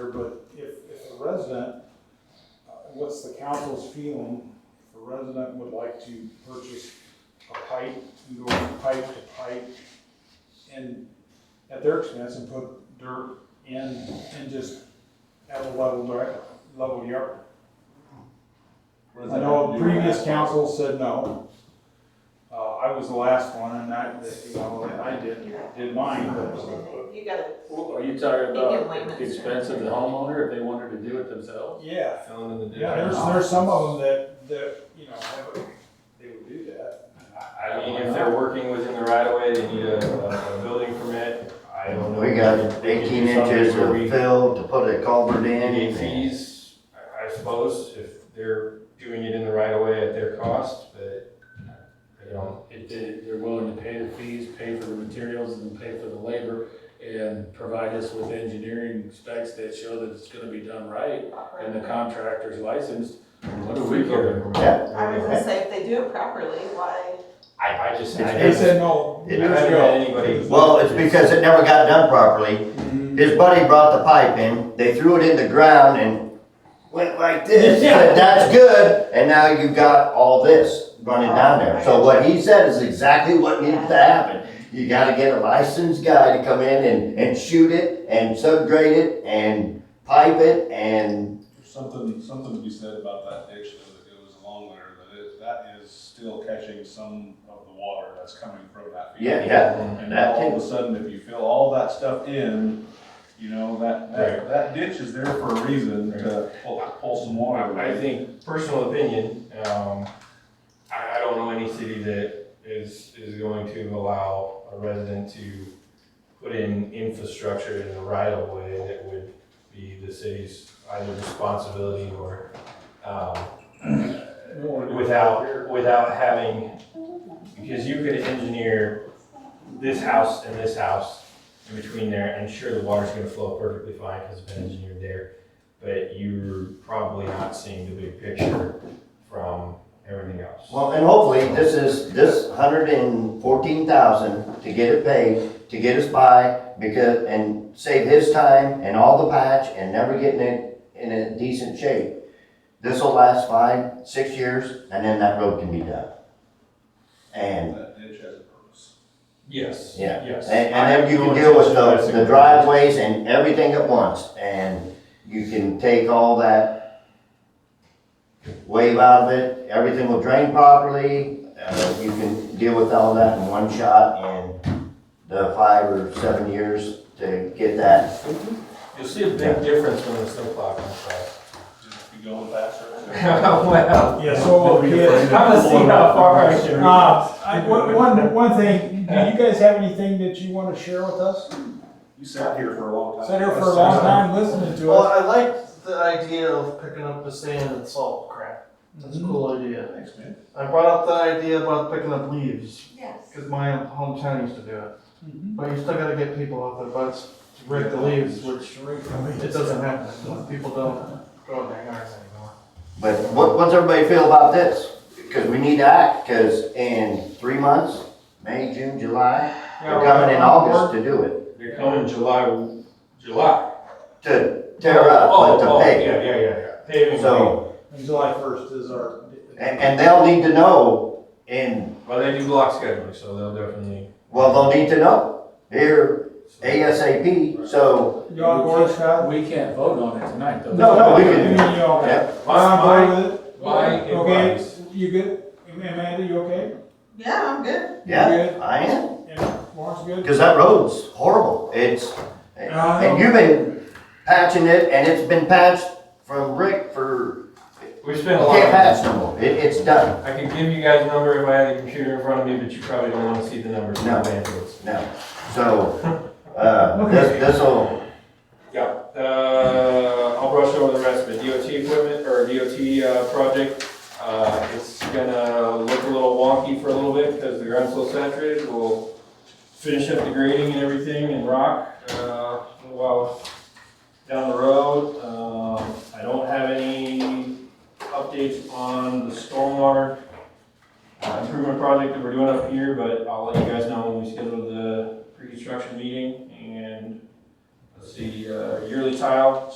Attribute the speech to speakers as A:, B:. A: but if, if a resident, uh, what's the council's feeling? If a resident would like to purchase a pipe and go from pipe to pipe and at their expense and put dirt in and just have a level, dir- level yard.
B: What does
A: I
B: that
A: know
B: have to
A: a
B: do with
A: previous
B: that?
A: council said no. Uh, I was the last one and I, you know, and I did, did mine, but,
C: You gotta,
D: Well, Are you talking
C: Give him
D: about
C: layman's
D: at the expense of the homeowner if they wanted to do it themselves?
A: yeah.
B: Filling in the
A: Yeah, there's,
B: difference.
A: there's some of them that, that, you know, have a- they would do that.
B: I mean, if they're working within the right of way, they need a, a building permit, I don't know.
E: We got
B: They can do
E: eighteen inches
B: something where we-
E: of fill to put a culvert
B: They need
E: in.
B: fees, I, I suppose, if they're doing it in the right of way at their cost, but, you know,
D: If they- they're willing to pay the fees, pay for the materials, and pay for the labor, and provide us with engineering specs that show that it's gonna be done right, and the contractor's licensed, what do we care?
C: I was gonna
E: Yeah.
C: say, if they do it properly, why?
B: I, I just, I
A: They
B: haven't,
A: said no
B: I
A: years
B: haven't
A: ago.
B: had anybody.
E: Well, it's because it never got done properly.
A: Mhm.
E: His buddy brought the pipe in, they threw it in the ground and went like this. Said, That's good, and now you've got all this running down there. So what he said is exactly what needs to happen. You gotta get a licensed guy to come in and, and shoot it, and subgrade it, and pipe it, and
F: There's Something, something to be said about that ditch that it was along there, that it, that is still catching some of the water that's coming from that field.
E: yeah, yeah.
F: And
E: that
F: all of a sudden, if you fill all that stuff in, you know, that, that, that ditch is there for a reason to pull, pull some water.
B: I I think, personal opinion, um, I, I don't know any city that is, is going to allow a resident to put in infrastructure in the right of way that would be the city's either responsibility or, um, without, without having, because you could engineer this house and this house in between there, and sure, the water's gonna flow perfectly fine because it's been engineered there, but you're probably not seeing the big picture from everything else.
E: Well, and hopefully, this is, this hundred and fourteen thousand to get it paid, to get us by, because, and save his time and all the patch and never getting it in a decent shape. This'll last five, six years, and then that road can be done. And,
F: That ditch has a purpose.
B: Yes,
E: Yeah.
B: yes.
E: and, and then you can deal with the, the driveways and everything at once, and you can take all that wave out of it, everything will drain properly, uh, you can deal with all that in one shot in the five or seven years to get that.
B: You'll see a big difference when the snowplow comes by.
F: Just be going faster.
B: Well.
A: Yeah, so,
B: I'm
A: yeah.
B: gonna see how far I can.
A: Uh, I, one, one- one thing, do you guys have anything that you wanna share with us?
F: You sat here for a long time.
A: Sat here for a long time listening to
G: Well,
A: us.
G: I liked the idea of picking up the sand and salt crap. That's a cool idea.
F: Thanks, man.
G: I brought up the idea about picking up leaves,
C: Yes.
G: because my hometown used to do it.
A: Mhm.
G: But you still gotta get people off their butts to rake the leaves, which it doesn't happen. People don't go in their yards anymore.
E: But what, what's everybody feel about this? Because we need to act, because in three months, May, June, July, they're coming in August to do it,
B: They're coming July, July.
E: to tear up,
B: Oh,
E: but
B: oh,
E: to pay.
B: Yeah, yeah, yeah, yeah. Paving.
E: So,
A: And July first is our.
E: And, and they'll need to know, and,
B: Well, they do block scheduling, so they'll definitely.
E: well, they'll need to know here ASAP, so,
A: You on board, Scott?
D: We can't vote on it tonight, though.
E: No, no, we can-
A: You mean you all got it?
B: My-
A: On board with it?
B: my
A: Okay,
B: advice-
A: you good? Amanda, you okay?
C: Yeah, I'm good.
E: yeah,
A: You
E: I am.
A: good? And Lawrence good?
E: Cause that road's horrible, it's, and you've been patching it, and it's been patched from Rick for,
B: We spent a lot
E: can't
B: of
E: patch no more, it, it's done,
B: I could give you guys a number if I had the computer in front of me, but you probably don't wanna see the numbers. in
E: No.
B: my hands.
E: no. So, uh, this, this'll,
B: Yeah, uh, I'll brush over the rest of it. DOT equipment or DOT, uh, project, uh, it's gonna look a little wonky for a little bit because the ground's so saturated. We'll finish up the grading and everything and rock, uh, a little while down the road. Um, I don't have any updates on the stormwater uh, improvement project that we're doing up here, but I'll let you guys know when we schedule the pre-construction meeting and Let's see, uh, yearly tile